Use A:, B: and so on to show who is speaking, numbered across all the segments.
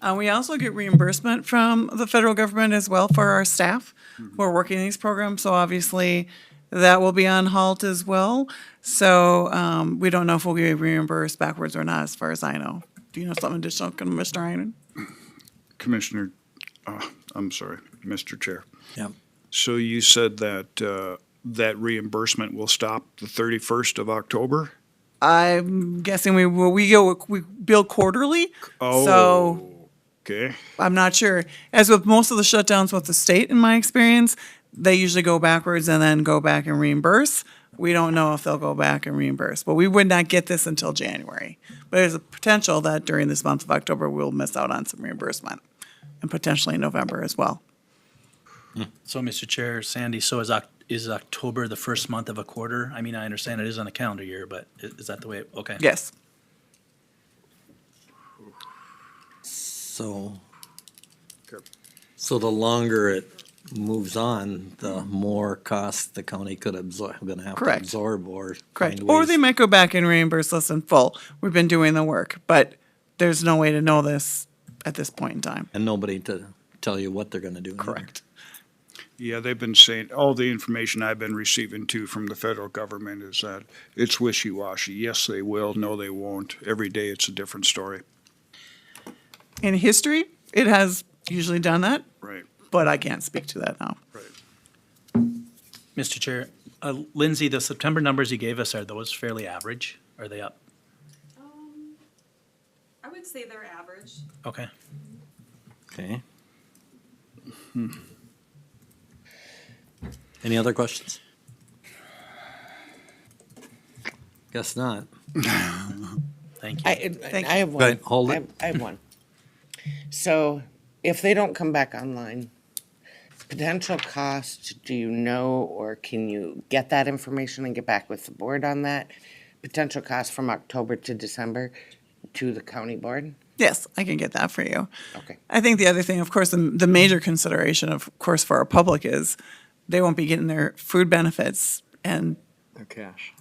A: Uh, we also get reimbursement from the federal government as well for our staff who are working these programs, so obviously that will be on halt as well. So, um, we don't know if we'll get reimbursed backwards or not, as far as I know. Do you know something additional, Commissioner Heinen?
B: Commissioner, uh, I'm sorry, Mr. Chair.
C: Yeah.
B: So you said that, uh, that reimbursement will stop the 31st of October?
A: I'm guessing we, will. we go, we bill quarterly, so.
B: Oh, Okay,
A: I'm not sure. As with most of the shutdowns with the state, in my experience, they usually go backwards and then go back and reimburse. We don't know if they'll go back and reimburse, but we would not get this until January. But there's a potential that during this month of October, we'll miss out on some reimbursement and potentially November as well.
C: So, Mr. Chair, Sandy, so is Oc- is October the first month of a quarter? I mean, I understand it is on a calendar year, but i- is that the way, okay.
A: Yes.
D: So, so the longer it moves on, the more cost the county could absorb, gonna have to
A: Correct.
D: absorb or.
A: Correct.
D: find
A: Or
D: ways-
A: they might go back and reimburse us in full. We've been doing the work, but there's no way to know this at this point in time.
D: And nobody to tell you what they're gonna do. either.
A: Correct.
B: yeah, they've been saying, all the information I've been receiving too from the federal government is that it's wishy-washy. Yes, they will, no, they won't. Every day it's a different story.
A: In history, it has usually done that,
B: Right,
A: but I can't speak to that now.
B: right.
C: Mr. Chair, uh, Lindsay, the September numbers you gave us, are those fairly average? Are they up?
E: Um, I would say they're average.
C: Okay.
D: Okay. Any other questions? Guess not.
C: Thank you.
F: I,
A: Thank
F: I have one.
D: ahead, hold
F: I
D: it.
F: have- I have one. So if they don't come back online, potential cost, do you know, or can you get that information and get back with the board on that? Potential cost from October to December to the county board?
A: Yes, I can get that for you.
F: Okay.
A: I think the other thing, of course, the, the major consideration, of course, for our public is they won't be getting their food benefits and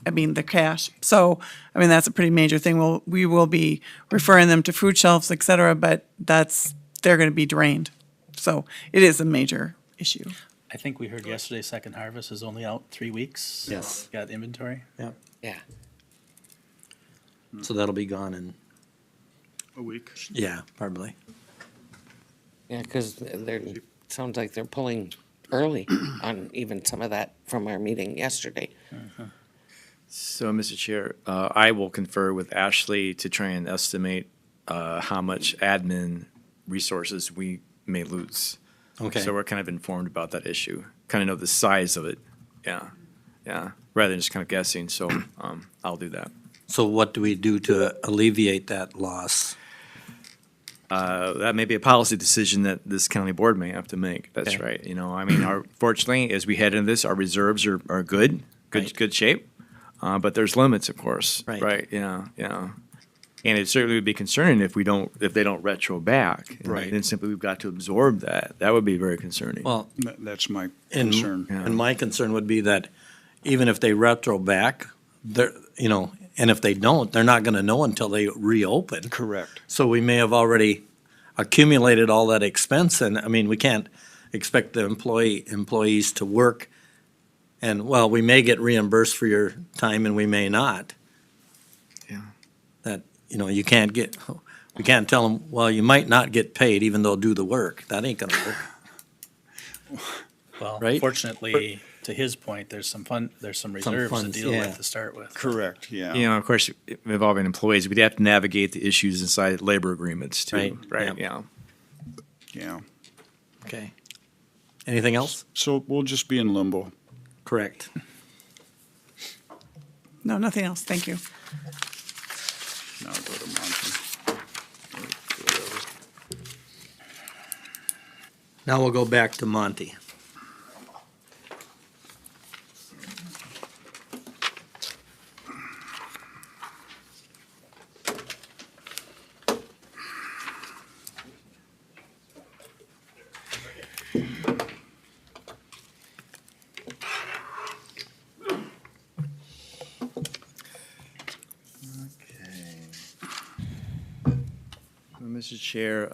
A: I mean, the cash. So, I mean, that's a pretty major thing. We'll, we will be referring them to food shelves, et cetera, but that's, they're going to be drained. So it is a major issue.
C: I think we heard yesterday Second Harvest is only out three weeks.
D: Yes.
C: Got inventory?
D: Yeah.
F: Yeah.
D: So that'll be gone in,
B: A week.
D: yeah, probably.
F: Yeah, because they're, sounds like they're pulling early on even some of that from our meeting yesterday.
G: So, Mr. Chair, uh, I will confer with Ashley to try and estimate uh, how much admin resources we may lose.
D: Okay.
G: So we're kind of informed about that issue, kind of know the size of it. Yeah, yeah, rather than just kind of guessing. So um, I'll do that.
D: So what do we do to alleviate that loss?
G: Uh, that may be a policy decision that this county board may have to make. That's
D: Okay.
G: right. You know, I mean, our, fortunately, as we head into this, our reserves are, are good, good,
D: Right.
G: good shape. Uh, but there's limits, of course.
D: Right.
G: Right. Yeah. Yeah. And it certainly would be concerning if we don't, if they don't retro back. And
D: Right.
G: Then simply we've got to absorb that. That would be very concerning.
D: Well,
B: That- That's my
D: And,
B: concern.
D: and my concern would be that even if they retro back, they're, you know, and if they don't, they're not gonna know until they reopen.
B: Correct.
D: So we may have already accumulated all that expense and, I mean, we can't expect the employee, employees to work. And, well, we may get reimbursed for your time and we may not.
G: Yeah.
D: That, you know, you can't get, we can't tell them, well, you might not get paid even though do the work. That ain't gonna work.
C: Well,
D: Right.
C: fortunately, to his point, there's some fun, there's some reserves to
D: funds,
C: deal
D: yeah.
C: with to start with.
B: Correct, yeah.
G: you know, of course, involving employees, we'd have to navigate the issues inside labor agreements too.
D: Right.
G: Right.
D: Yeah.
G: Yeah.
B: Yeah.
D: Okay. Anything else?
B: So we'll just be in limbo.
D: Correct.
A: No, nothing else. Thank you.
B: Now go to Monty.
D: Now we'll go back to Monty.
G: Mr. Chair,